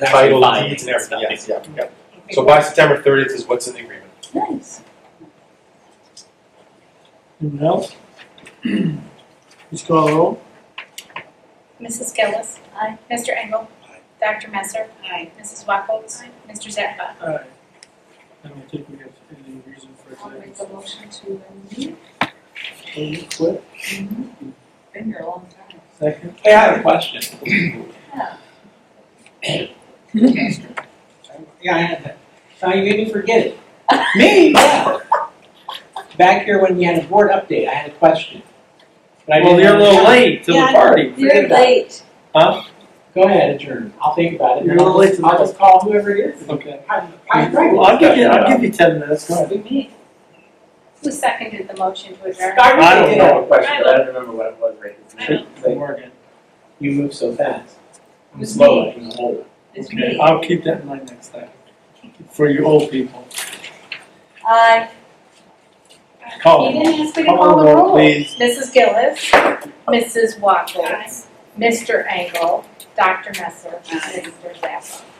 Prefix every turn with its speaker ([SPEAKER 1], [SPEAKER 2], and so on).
[SPEAKER 1] title
[SPEAKER 2] Actually,
[SPEAKER 1] deeds and
[SPEAKER 2] fines
[SPEAKER 1] everything,
[SPEAKER 2] and
[SPEAKER 1] yes, yeah, yeah. So by September thirtieth is what's in the agreement.
[SPEAKER 3] Nice.
[SPEAKER 4] Anyone else? Please call the roll.
[SPEAKER 5] Mrs. Gillis. Aye. Mr. Engel.
[SPEAKER 1] Aye.
[SPEAKER 5] Dr. Messer.
[SPEAKER 3] Aye.
[SPEAKER 5] Mrs. Wackels. Mr. Zappa.
[SPEAKER 4] Aye. I don't think we have any reason for it
[SPEAKER 3] I'll
[SPEAKER 4] to
[SPEAKER 3] make the motion to, um,
[SPEAKER 4] So you quit.
[SPEAKER 3] Mm-hmm. been here a long time.
[SPEAKER 4] Second,
[SPEAKER 2] Hey, I have a question.
[SPEAKER 3] Yeah.
[SPEAKER 6] Yeah, I had that. Now you made me forget it. Me? Yeah. Back here when we had a board update, I had a question. But I
[SPEAKER 2] Well,
[SPEAKER 6] didn't
[SPEAKER 2] you're a little
[SPEAKER 6] have-
[SPEAKER 2] late to the
[SPEAKER 3] Yeah, I know.
[SPEAKER 2] party. Forget
[SPEAKER 3] You're
[SPEAKER 2] about it.
[SPEAKER 3] late.
[SPEAKER 6] Go ahead, adjourn. I'll think about it.
[SPEAKER 4] You're
[SPEAKER 6] and
[SPEAKER 4] a
[SPEAKER 6] I'll
[SPEAKER 4] little late
[SPEAKER 6] just-
[SPEAKER 4] to
[SPEAKER 6] I'll
[SPEAKER 4] the-
[SPEAKER 6] just call whoever it is.
[SPEAKER 4] okay.
[SPEAKER 6] I'm, I'm
[SPEAKER 4] Well,
[SPEAKER 6] right.
[SPEAKER 4] I'll give you, I'll give you ten minutes, go ahead.
[SPEAKER 5] Who seconded the motion to adjourn?
[SPEAKER 6] I
[SPEAKER 2] I
[SPEAKER 6] really
[SPEAKER 2] don't
[SPEAKER 6] did.
[SPEAKER 2] know a question, but I don't remember what it was, right?
[SPEAKER 5] I don't.
[SPEAKER 6] Like, Morgan, you move so fast. I'm
[SPEAKER 3] It's
[SPEAKER 6] slow,
[SPEAKER 3] me.
[SPEAKER 6] I can hold it.
[SPEAKER 3] It's
[SPEAKER 4] Okay,
[SPEAKER 3] me.
[SPEAKER 4] I'll keep that in mind next time. For you old people.
[SPEAKER 3] Aye.
[SPEAKER 4] Call,
[SPEAKER 5] You didn't ask me to
[SPEAKER 4] call
[SPEAKER 5] call
[SPEAKER 4] the
[SPEAKER 5] the
[SPEAKER 4] roll, Oh.
[SPEAKER 5] roll.
[SPEAKER 4] please.
[SPEAKER 5] Mrs. Gillis. Mrs. Wackels. Mr. Engel. Dr. Messer.
[SPEAKER 3] Aye.
[SPEAKER 5] Mr. Zappa.